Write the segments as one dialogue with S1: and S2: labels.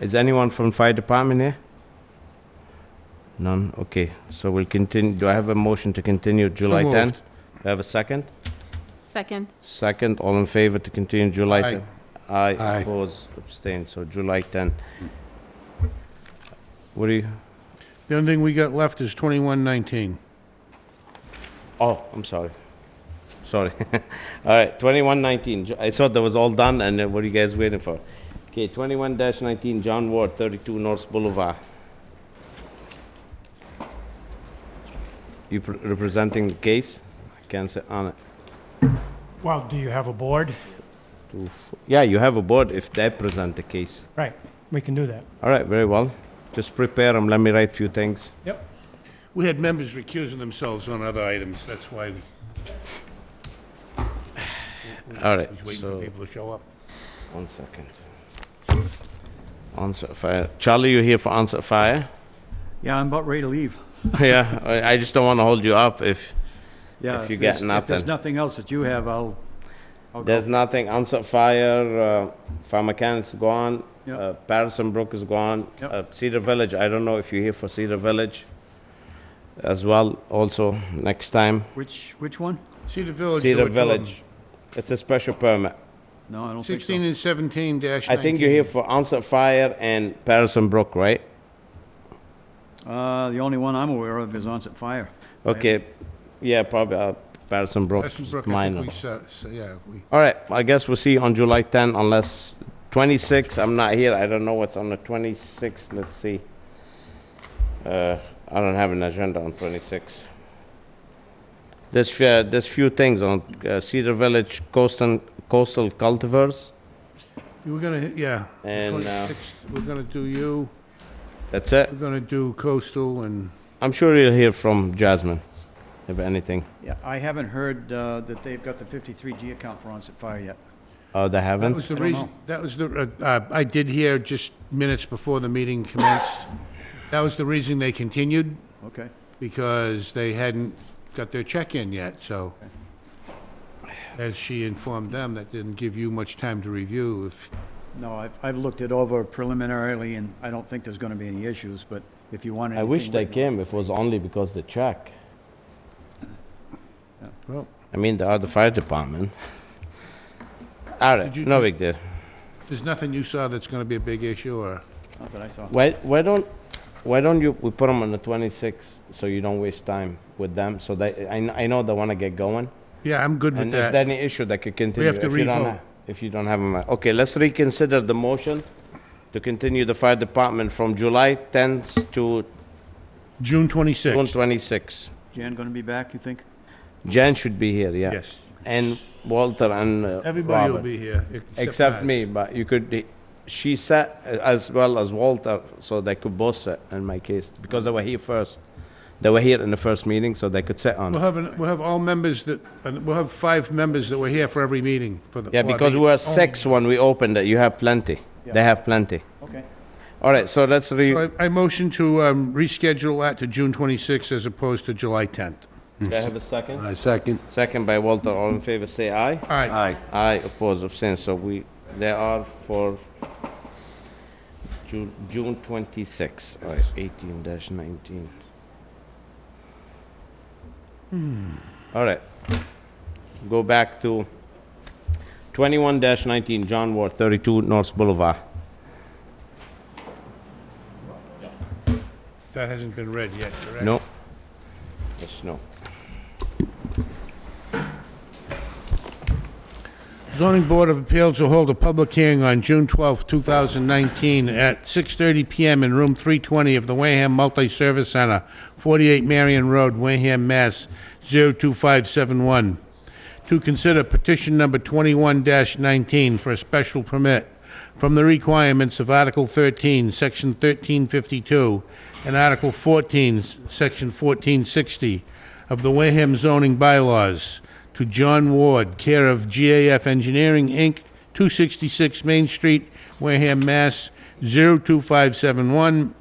S1: Is anyone from fire department here? None, okay, so we'll continue, do I have a motion to continue July
S2: moved.
S1: 10? Do I have a second?
S3: Second.
S1: Second, all in favor to continue July
S2: Aye.
S1: 10? Aye.
S2: Aye.
S1: Oppose, abstain, so July 10. What do you,
S2: The only thing we got left is 2119.
S1: oh, I'm sorry. Sorry. All right, 2119, Ju- I thought that was all done, and uh, what are you guys waiting for? Okay, 21-19, John Ward, 32 North Boulevard. You pr- representing the case? I can't say uh, on it.
S4: Well, do you have a board?
S1: Yeah, you have a board if they present the case.
S4: Right, we can do that.
S1: All right, very well. Just prepare them, let me write few things.
S4: Yep.
S2: We had members recusing themselves on other items, that's why we
S1: All right,
S2: was waiting for
S1: so,
S2: people to show up.
S1: one second. Onset Fire, Charlie, you here for Onset Fire?
S5: Yeah, I'm about ready to leave.
S1: Yeah, I, I just don't wanna hold you up if,
S5: Yeah,
S1: If you
S5: there's-
S1: got
S5: If there's
S1: nothing.
S5: nothing else that you have, I'll, I'll go.
S1: there's nothing, Onset Fire, uh, Pharmacan's gone,
S5: Yep.
S1: uh, Patterson Brook is gone,
S5: Yep.
S1: uh, Cedar Village, I don't know if you're here for Cedar Village as well, also, next time.
S5: Which, which one?
S2: Cedar Village. there
S1: Cedar
S2: were two of them.
S1: Village, it's a special permit.
S5: No, I don't think
S2: 16
S5: so.
S2: and 17 dash
S1: I
S2: 19.
S1: think you're here for Onset Fire and Patterson Brook, right?
S5: Uh, the only one I'm aware of is Onset Fire.
S1: Okay, yeah, probably, uh, Patterson Brook,
S2: Patterson Brook, I
S1: minor.
S2: think we, sa- sa- yeah, we,
S1: All right, I guess we'll see you on July 10 unless 26, I'm not here, I don't know what's on the 26, let's see. Uh, I don't have an agenda on 26. There's, fe- there's few things on uh, Cedar Village coastal, coastal cultivars,
S2: you were gonna, hit- yeah. the
S1: and uh,
S2: 26th, We're gonna do you,
S1: that's it.
S2: we're gonna do coastal and,
S1: I'm sure you'll hear from Jasmine, if anything.
S5: Yeah, I haven't heard, uh, that they've got the 53G account for Onset Fire yet.
S1: Oh, they
S2: that
S1: haven't?
S2: was the
S5: I don't
S2: reason,
S5: know.
S2: that was the, uh, uh, I did hear just minutes before the meeting commenced. That was the reason they continued,
S5: Okay.
S2: because they hadn't got their check in yet, so. As she informed them, that didn't give you much time to review if,
S5: No, I've, I've looked it over preliminarily, and I don't think there's gonna be any issues, but if you want
S1: I
S5: anything...
S1: wish they
S5: written-
S1: came, if it was only because the check.
S2: well,
S1: I mean, they are the fire department. All right,
S2: Did you-
S1: no big deal.
S2: there's nothing you saw that's gonna be a big issue, or?
S5: Not that I saw.
S1: Why, why don't, why don't you, we put them on the 26th, so you don't waste time with them, so they, I, kn- I know they wanna get going.
S2: Yeah, I'm good with
S1: And if
S2: that.
S1: there's any issue, they could continue.
S2: uh, to
S1: If you don't
S2: revote.
S1: ha- If you don't have them, okay, let's reconsider the motion to continue the fire department from July 10th to June
S2: June 26th.
S1: 26th.
S5: Jan gonna be back, you think?
S1: Jan should be here, yeah.
S2: Yes.
S1: And Walter and uh,
S2: Everybody will
S1: Robert.
S2: be here.
S1: Except
S2: us.
S1: me, but you could, she sat as well as Walter, so they could both sit in my case, because they were here first. They were here in the first meeting, so they could sit on.
S2: We'll
S1: it.
S2: have, an- we'll have all members that, and we'll have five members that were here for every meeting for the.
S1: Yeah,
S2: for
S1: because
S2: the
S1: we were
S2: only-
S1: six when we opened it, you have plenty. They
S5: Yeah.
S1: have plenty.
S5: Okay.
S1: All right, so let's re,
S2: So I I motion to um, reschedule that to June 26th as opposed to July 10th.
S1: do I have a second?
S6: I second.
S1: Second by Walter, all in favor, say aye.
S2: All right,
S6: Aye.
S1: Aye, oppose, abstain, so we, they are for Ju- June 26, all right, 18 dash 19.
S6: Hmm.
S1: All right, go back to 21 dash 19, John Ward, 32 North Boulevard.
S2: that hasn't been read yet, correct?
S1: No. Yes, no.
S2: Zoning Board of Appeals will hold a public hearing on June 12th, 2019, at 6:30 PM in Room 320 of the Wareham Multi-Service Center, 48 Marion Road, Wareham, Mass. 02571, to consider petition number 21-19 for a special permit from the requirements of Article 13, Section 1352, and Article 14, Section 1460 of the Wareham zoning bylaws to John Ward, care of GAF Engineering, Inc., 266 Main Street, Wareham, Mass. 02571,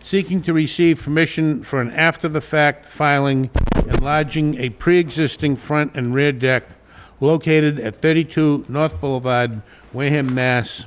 S2: seeking to receive permission for an after-the-fact filing enlarging a pre-existing front and rear deck located at 32 North Boulevard, Wareham, Mass.